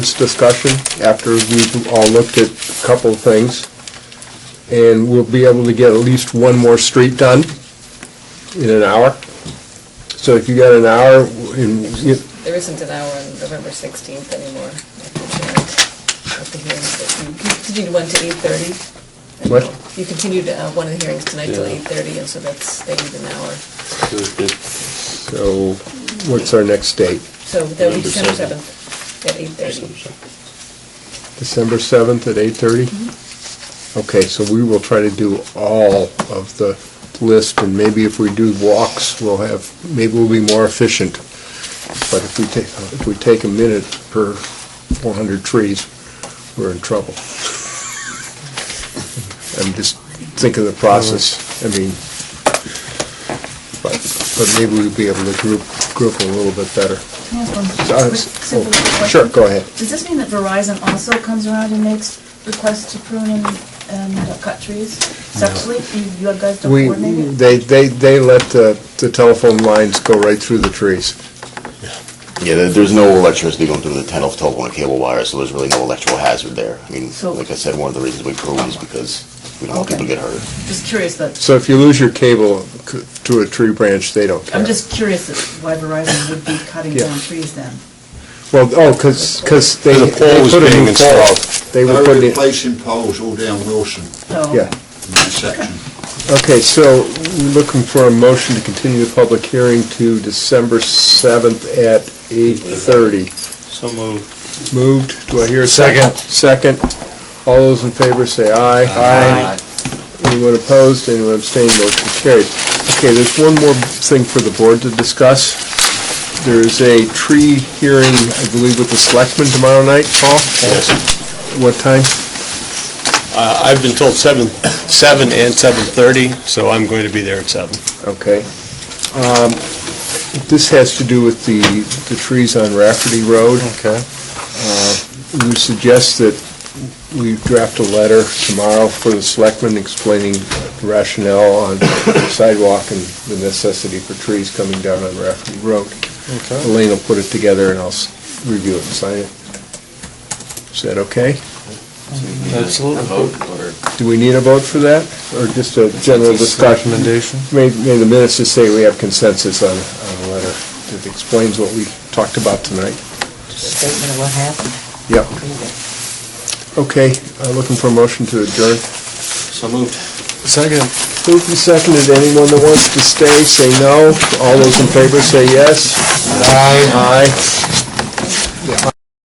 this discussion after we've all looked at a couple of things, and we'll be able to get at least one more street done in an hour. So if you got an hour, and you- There isn't an hour on November 16th anymore. at the hearings that You continued one to 8:30. What? You continued uh, one of the hearings tonight till 8:30, and so that's, they need an hour. so what's our next date? So that would be December November 7th at 8:30. December 7th at 8:30? Okay, so we will try to do all of the list, and maybe if we do walks, we'll have, maybe we'll be more efficient. But if we take, if we take a minute per 400 trees, we're in trouble. I'm just thinking of the process, I mean, but, but maybe we'll be able to group, group a little bit better. Can I ask one Uh, quick, simple oh, question? Sure, go ahead. Does this mean that Verizon also comes around and makes requests to prune and, and um, cut trees separately? You, you guys don't We, coordinate it? they, they, they let the, the telephone lines go right through the trees. Yeah, there- there's no electricity going through the ten of telephone and cable wire, so there's really no electrical hazard there. I mean, So- like I said, one of the reasons we prune is because we don't want Okay. people to get hurt. Just curious that, So if you lose your cable c- to a tree branch, they don't care. I'm just curious that why Verizon would be cutting Yeah. down trees then. Well, oh, because, they, The they pole was put a being new pole. installed. They were They're putting it, replacing poles all down Wilson So, yeah. in that section. Okay, so we're looking for a motion to continue the public hearing to December 7th at 8:30. So moved. Moved, do I hear a second? Second. All those in favor say aye. Aye. Anyone opposed, anyone abstained, motion carried. Okay, there's one more thing for the board to discuss. There is a tree hearing, I believe, with the selectmen tomorrow night, Paul? What time? Uh, I've been told seven, seven and seven thirty, so I'm going to be there at seven. Okay. Um, This has to do with the, the trees on Rafferty Road. Okay. We suggest that we draft a letter tomorrow for the selectmen explaining rationale on sidewalk and the necessity for trees coming down on Rafferty Road. Elaine will put it together and I'll s- review it and sign it. Is that okay? Absolutely. Do we need a vote for that, or just a general discussion? Recommendation? May, may the minutes just say we have consensus on, on a letter that explains what we talked about tonight. statement of what happened. Yep. Okay, uh, looking for a motion to adjourn. So moved. Second. Moved and seconded. Anyone that wants to stay, say no. All those in favor, say yes. Aye. Aye.